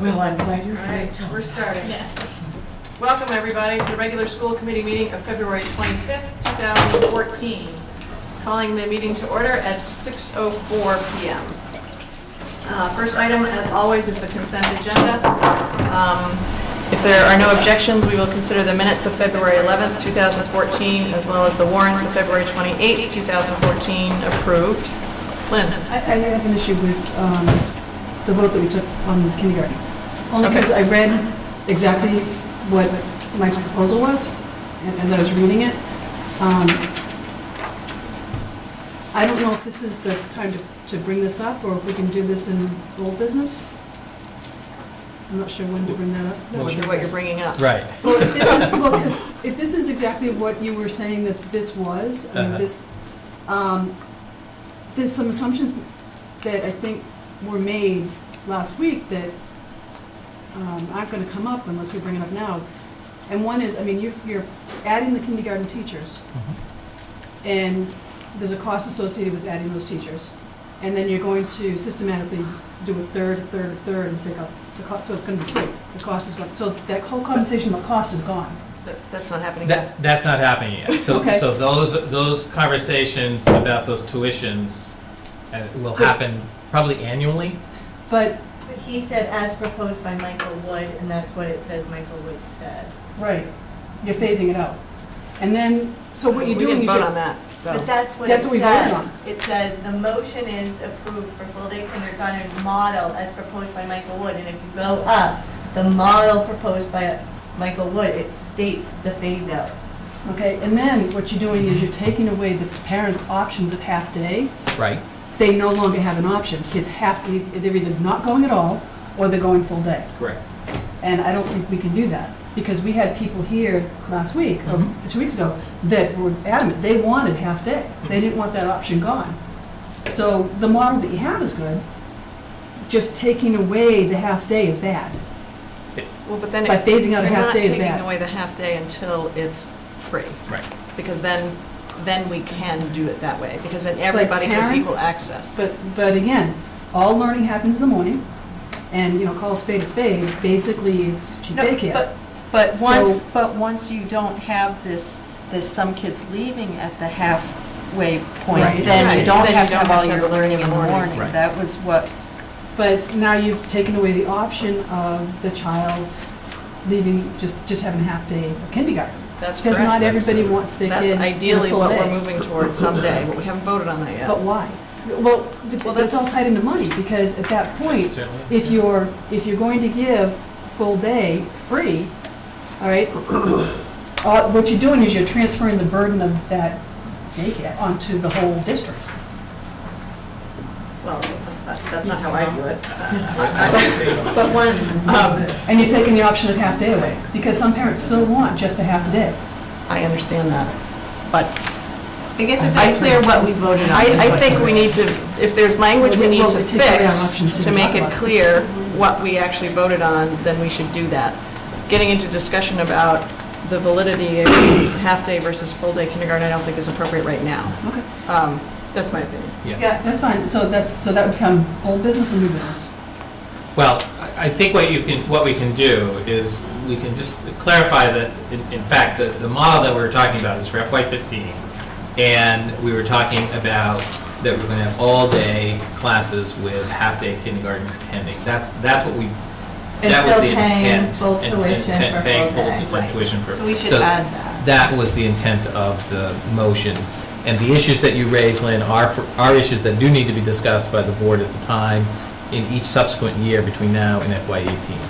Well, I'm glad you're All right, we're starting. Welcome, everybody, to the regular school committee meeting of February 25th, 2014. Calling the meeting to order at 6:04 PM. Uh, First item, as always, is the consent agenda. Um, If there are no objections, we will consider the minutes of February 11th, 2014, as well as the warrants of February 28th, 2014 approved. Lynn? I, I have an issue with, um, the vote that we took on kindergarten. Only Okay. because I read exactly what Mike's proposal was, and as I was reading it, um, I don't know if this is the time to, to bring this up, or if we can do this in old business. I'm not sure when to bring that up. I wonder what you're bringing up. Right. Well, if this is, well, 'cause if this is exactly what you were saying that this was, I mean, Uh-huh. this, um, there's some assumptions that I think were made last week that, um, aren't gonna come up unless we bring it up now. And one is, I mean, you're, you're adding the kindergarten teachers, Mm-hmm. and there's a cost associated with adding those teachers. And then you're going to systematically do a third, a third, a third, and take up the cost, so it's gonna be three. The cost is gone, so that whole compensation, the cost is gone. That- That's not happening yet. That, that's not happening yet. So, Okay. so those, those conversations about those tuitions uh, will happen probably annually. But, But he said as proposed by Michael Wood, and that's what it says Michael Wood said. right, you're phasing it out. And then, so what you're doing We is didn't vote on you're. that, though. But that's what it That's what we voted on. says. It says, "The motion is approved for full-day kindergarten model as proposed by Michael Wood." And if you go up, the model proposed by Michael Wood, it states the phase-out. Okay, and then what you're doing is you're taking away the parents' options of half-day. Right. They no longer have an option. Kids have, to they're either not going at all, or they're going full day. Correct. And I don't think we can do that, because we had people here last week, or Mhm. two weeks ago, that were adamant, they wanted half-day. They didn't want that option gone. So the model that you have is good, just taking away the half-day is bad. Well, but then. By it- phasing out a half day is You're not bad. taking away the half-day until it's free. Right. Because then, then we can do it that way, because then everybody has equal parents- access. But, but again, all learning happens in the morning, and, you know, call a spade a spade, basically, it's cheap No, daycare. but, but So- once, but once you don't have this, there's some kids leaving at the halfway Right. point, then Right. you don't Then you have to don't have have all to have your learning in the morning. Right. That was what, But now you've taken away the option of the child leaving, just, just having a half day of kindergarten. That's Because not correct. everybody wants their kid That's in a ideally full what we're day. moving towards someday, but we haven't voted on that But yet. why? Well, th- Well, that's- that's all tied into money, because at that point, Certainly. if you're, if you're going to give full day free, all right, uh, what you're doing is you're transferring the burden of that daycare onto the whole district. Well, that- that's not how I do it. I- But one, um, And you're taking the option of half day away, because some parents still want just a half a day. I understand that, but I guess it's unclear what we voted on. I, I think we need to, if there's language we need Well, to it takes away our fix, options to to make it talk about it. clear what we actually voted on, then we should do that. Getting into discussion about the validity of half-day versus full-day kindergarten, I don't think is appropriate right now. Okay. Um, That's my opinion. Yeah. Yeah, That's fine, so that's, so that would become old business and new business. Well, I, I think what you can, what we can do is we can just clarify that, in, in fact, the, the model that we were talking about is for FY fifteen. And we were talking about that we're gonna have all-day classes with half-day kindergarten attending. That's, that's what we, And that was still the paying intent. full and- and tuition ten- for Paying full full day, tu- right. tuition for. so we should so add that. That was the intent of the motion. And the issues that you raised, Lynn, are, for- are issues that do need to be discussed by the board at the time in each subsequent year between now and FY eighteen.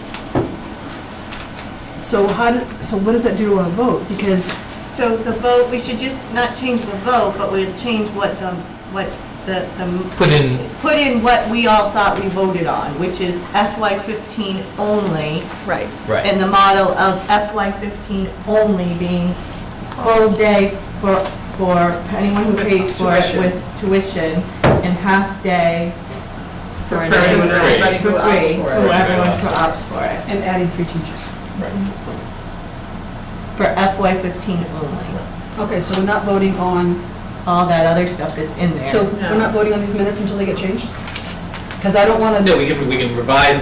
So how, do- so what does that do to our vote? Because So the vote, we should just not change the vote, but we'll change what the, what the, the. Put in- Put in what we all thought we voted on, which is FY fifteen only. Right. And the model of FY fifteen only being full day for, for anyone who pays for it Tuition. with tuition and half day For For everyone free. everybody for who opts free for for it. everyone who opts for it, and adding three teachers. for FY fifteen only. Okay, so we're not voting on, All that other stuff that's in there. so we're No. not voting on these minutes until they get changed? Because I don't want to. No, we can, we can revise